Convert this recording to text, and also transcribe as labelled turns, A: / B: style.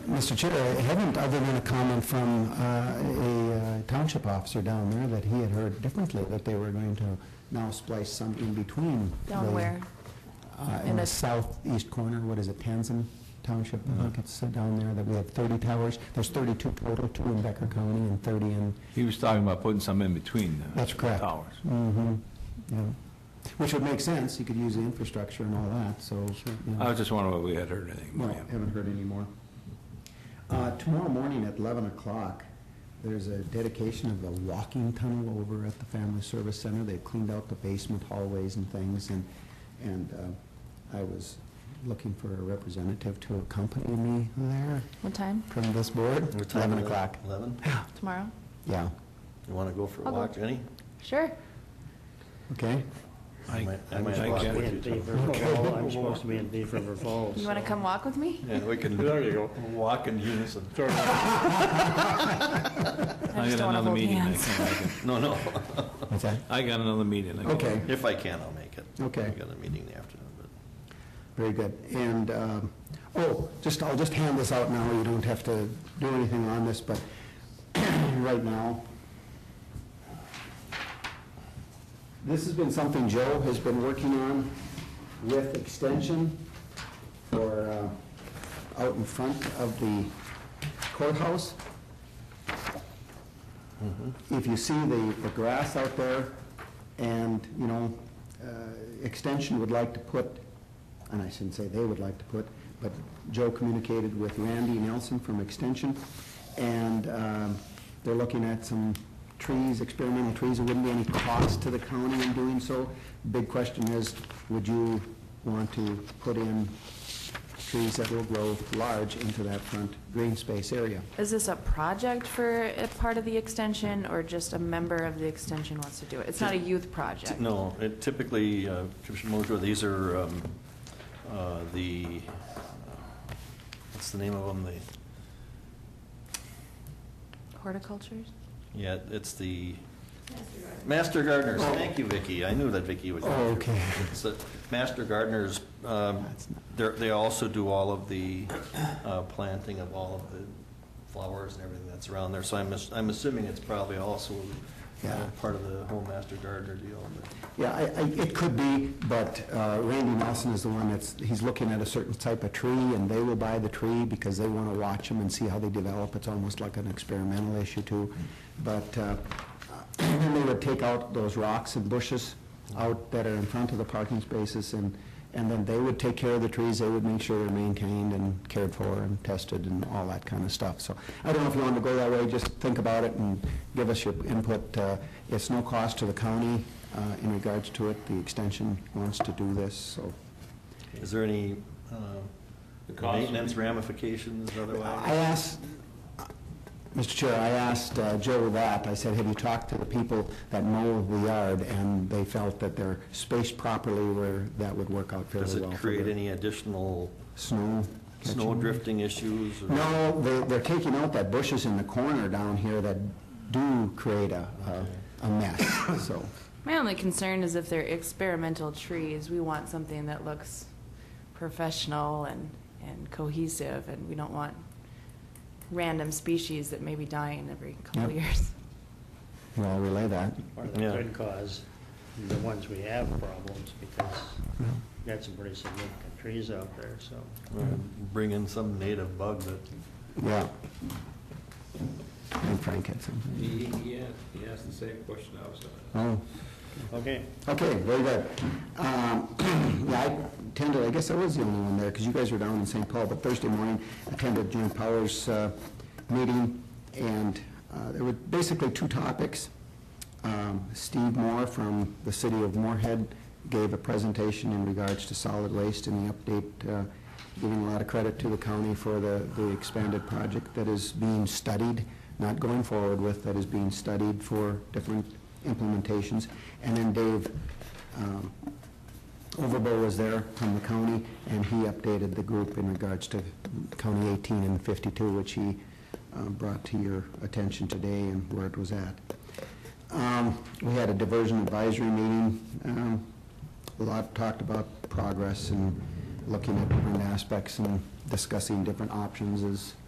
A: Mr. Chair, I haven't, other than a comment from uh, a uh, township officer down there that he had heard differently, that they were going to now splice some in between. the-
B: Down where?
A: uh,
B: In
A: In the
B: the-
A: southeast corner, what is it, Tanzan Township, I think it's uh, down there, that we have 30 towers. There's 32 total, two in Becker County and 30 in,
C: He was talking about putting some in between. uh,
A: That's correct.
C: Towers.
A: mhm, yeah. Which would make sense, you could use the infrastructure and all that, so. you know.
C: I was just wondering whether we had heard anything.
A: No,
C: from him.
A: haven't heard any more. Uh, Tomorrow morning at 11 o'clock, there's a dedication of the walking tunnel over at the Family Service Center. They've cleaned out the basement hallways and things, and, and uh, I was looking for a representative to accompany me there
B: What time?
A: from this board.
D: What time
A: 11
D: is it?
A: o'clock,
D: Eleven?
B: Tomorrow?
A: yeah,
D: You want to go for a
B: I'll go.
D: walk, Jenny?
B: Sure.
A: okay?
C: I
D: might- I
C: I
D: might
C: might
D: walk
C: get
D: with
C: it.
E: In Beaver Falls, I'm supposed to be in Beaver Falls.
B: You want to
E: so-
B: come walk with me?
C: Yeah, we can
D: There you go.
C: walk in unison. I
B: just
C: got
B: don't wanna
C: another
B: hold
C: meeting. I
B: hands.
C: can't make it.
D: No, no.
A: What's that?
C: I got another meeting. I can't
A: Okay.
C: make it.
D: If I can, I'll make it.
A: Okay.
D: I got a meeting in the afternoon, but.
A: Very good. And, um, oh, just, I'll just hand this out now, you don't have to do anything on this, but right now, this has been something Joe has been working on with Extension for, uh, out in front of the courthouse. If you see the, the grass out there, and, you know, uh, Extension would like to put, and I shouldn't say they would like to put, but Joe communicated with Randy Nelson from Extension, and um, they're looking at some trees, experimental trees, there wouldn't be any cost to the county in doing so. Big question is, would you want to put in trees that will grow large into that front green space area?
B: Is this a project for a part of the extension, or just a member of the extension wants to do it? It's not a youth project?
D: No, it typically, uh, Commissioner Mojo, these are um, uh, the, uh, what's the name of them? The,
B: Horticultures?
D: yeah, it's the. Master gardeners.
A: Oh.
D: Thank you, Vicki. I knew that Vicki would.
A: Oh, okay.
D: It's the Master gardeners, um,
A: That's not-
D: they're- they also do all of the uh, planting of all of the flowers and everything that's around there. So I'm, ass- I'm assuming it's probably also uh,
A: Yeah.
D: part of the whole master gardener deal. but-
A: Yeah, I, I, it could be, but uh, Randy Nelson is the one that's, he's looking at a certain type of tree, and they will buy the tree because they want to watch them and see how they develop. It's almost like an experimental issue too. But, uh, then they would take out those rocks and bushes out that are in front of the parking spaces, and, and then they would take care of the trees, they would make sure they're maintained and cared for and tested and all that kind of stuff. So I don't know if you want to go that way, just think about it and give us your input. Uh, It's no cost to the county uh, in regards to it, the extension wants to do this, so.
D: Is there any uh,
C: cost would
D: maintenance ramifications
A: I
D: otherwise?
A: asked, Mr. Chair, I asked uh, Joe that, I said, have you talked to the people that mow the yard? And they felt that they're spaced properly where that would work out fairly
D: Does
A: well.
D: it
A: for
D: create
A: the
D: any additional
A: Snow.
D: snow
A: catching.
D: drifting issues? or-
A: No, they're, they're taking out that bushes in the corner down here that do create a,
D: Okay.
A: a a mess, so.
B: My only concern is if they're experimental trees, we want something that looks professional and, and cohesive, and we don't want random species that may be dying every
A: Yep.
B: couple years.
A: Well, I'll relay that.
E: Or that
D: Yeah.
E: could cause the ones we have problems, because we got some pretty significant trees out there, so.
D: Or Bring in some native bug that
A: Yeah. And Frank had something.
C: He, he asked, he asked the same question I was gonna ask.
A: Oh.
E: Okay,
A: Okay, very good. Um, Yeah, I attended, I guess I was the only one there, because you guys were down in St. Paul, but Thursday morning, attended Jim Powers' uh, meeting, and uh, there were basically two topics. Um, Steve Moore from the city of Moorhead gave a presentation in regards to solid waste and the update, uh, giving a lot of credit to the county for the the expanded project that is being studied, not going forward with, that is being studied for different implementations. And then Dave um, Overbo was there from the county, and he updated the group in regards to County 18 and 52, which he uh, brought to your attention today and where it was at. Um, We had a diversion advisory meeting. Um, A lot talked about progress and looking at different aspects and discussing different options as